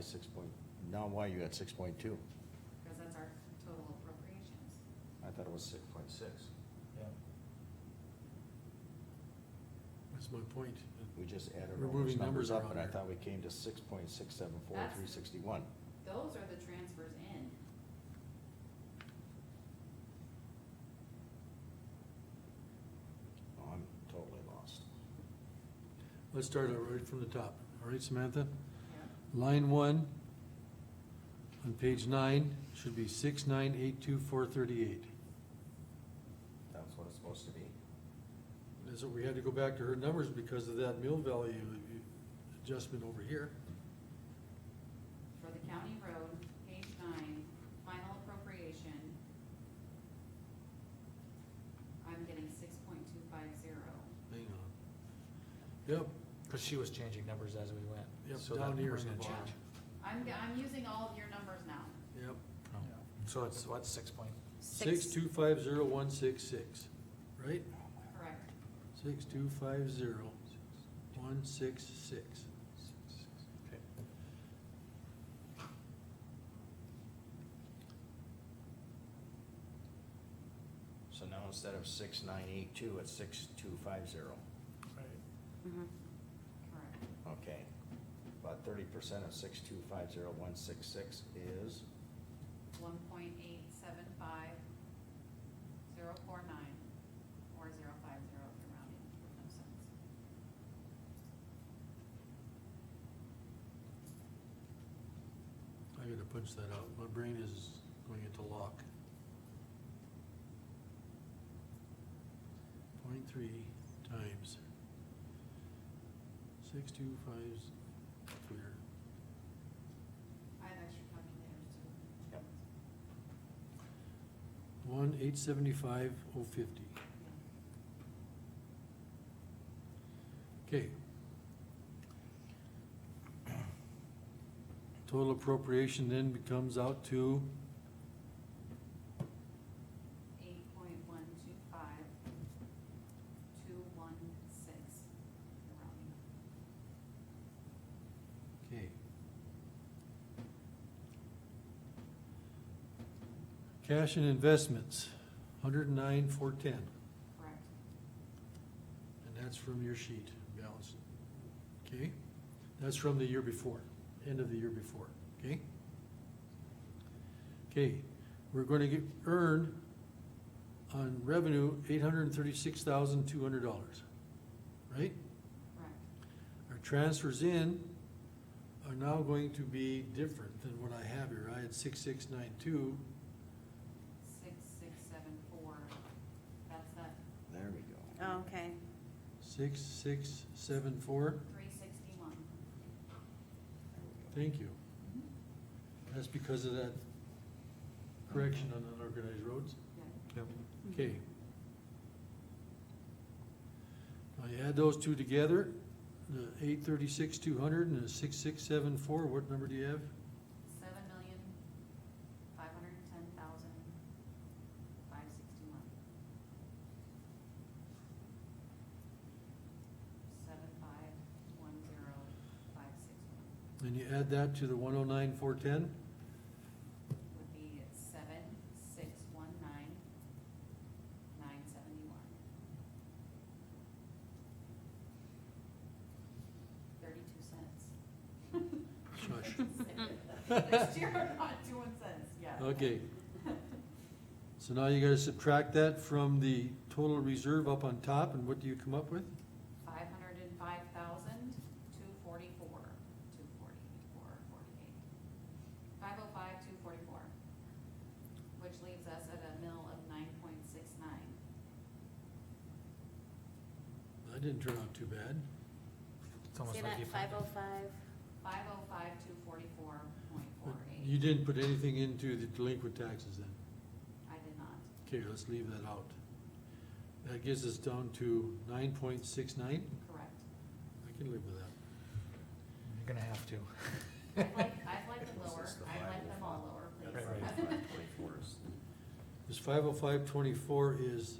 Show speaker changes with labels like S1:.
S1: six point, now why you at six point two?
S2: because that's our total appropriations.
S1: I thought it was six point six.
S3: Yeah.
S4: That's my point.
S1: We just added
S4: We're
S1: all those
S4: moving
S1: numbers
S4: numbers
S1: up,
S4: around
S1: and I
S4: here.
S1: thought we came to six point six seven four
S2: That's-
S1: three sixty-one.
S2: Those are the transfers in.
S1: Oh, I'm totally lost.
S4: Let's start out right from the top. All right, Samantha?
S2: Yeah.
S4: Line one on page nine should be six nine eight two four thirty-eight.
S1: That's what it's supposed to be.
S4: That's what we had to go back to her numbers because of that mill value adjustment over here.
S2: For the county road, page nine, final appropriation. I'm getting six point two five zero.
S4: Hang on. Yep,
S3: Cause she was changing numbers as we went.
S4: Yep,
S3: so that
S4: down here
S3: number's
S4: in the
S3: gonna
S4: bottom.
S3: change.
S2: I'm, I'm using all of your numbers now.
S4: yep.
S3: Oh. So it's, what, six point?
S4: Six two five zero one six six, right?
S2: Correct.
S4: Six two five zero one six six.
S3: Okay.
S1: So now instead of six nine eight two, it's six two five zero.
S2: Correct.
S1: Okay. About thirty percent of six two five zero one six six is,
S2: One point eight seven five zero four nine, or zero five zero if you're rounding, no sense.
S4: I gotta punch that out. My brain is going into lock. Point three times six two five, clear.
S2: I have extra calculators too.
S1: Yep.
S4: One eight seventy-five oh fifty. Okay. Total appropriation then becomes out to,
S2: Eight point one two five, two one six, you're rounding.
S4: okay. Cash and investments, hundred and nine four ten,
S2: Correct.
S4: and that's from your sheet, balance. Okay, that's from the year before, end of the year before, okay? Okay, we're gonna get, earn on revenue eight hundred and thirty-six thousand two hundred dollars, right?
S2: Correct.
S4: Our transfers in are now going to be different than what I have here. I had six, six, nine, two,
S2: Six, six, seven, four, that's that
S1: there we go.
S5: Oh, okay.
S4: six, six, seven, four.
S2: three sixty-one.
S4: Thank you. That's because of that correction on unorganized roads.
S3: Yep.
S4: Okay. Now you add those two together, the eight thirty-six, two hundred and the six, six, seven, four, what number do you have?
S2: Seven million, five hundred and ten thousand, five sixty-one. Seven, five, one, zero, five, six, one,
S4: And you add that to the one oh nine, four, ten?
S2: would be at seven, six, one, nine, nine seventy-one. Thirty-two cents.
S4: Shush.
S2: Next year, I'm not doing cents, yeah.
S4: Okay. So now you gotta subtract that from the total reserve up on top, and what do you come up with?
S2: Five hundred and five thousand, two forty-four, two forty-four, forty-eight. Five oh five, two forty-four. Which leaves us at a mill of nine point six nine.
S4: That didn't turn out too bad.
S3: It's almost
S5: See
S3: like
S5: that
S3: you
S5: five
S3: found
S5: oh five?
S2: Five oh five, two forty-four, point
S4: But
S2: four
S4: You
S2: eight.
S4: didn't put anything into the delinquent taxes then.
S2: I did not.
S4: Okay, let's leave that out. That gives us down to nine point six nine.
S2: Correct.
S4: I can live with that.
S3: You're gonna have to.
S2: I'd like, I'd like it
S1: This
S2: lower.
S1: is the
S2: I'd like them all
S1: 505. That's
S2: lower, please.
S3: Right,
S1: Five forty-four is
S4: This five oh five twenty-four is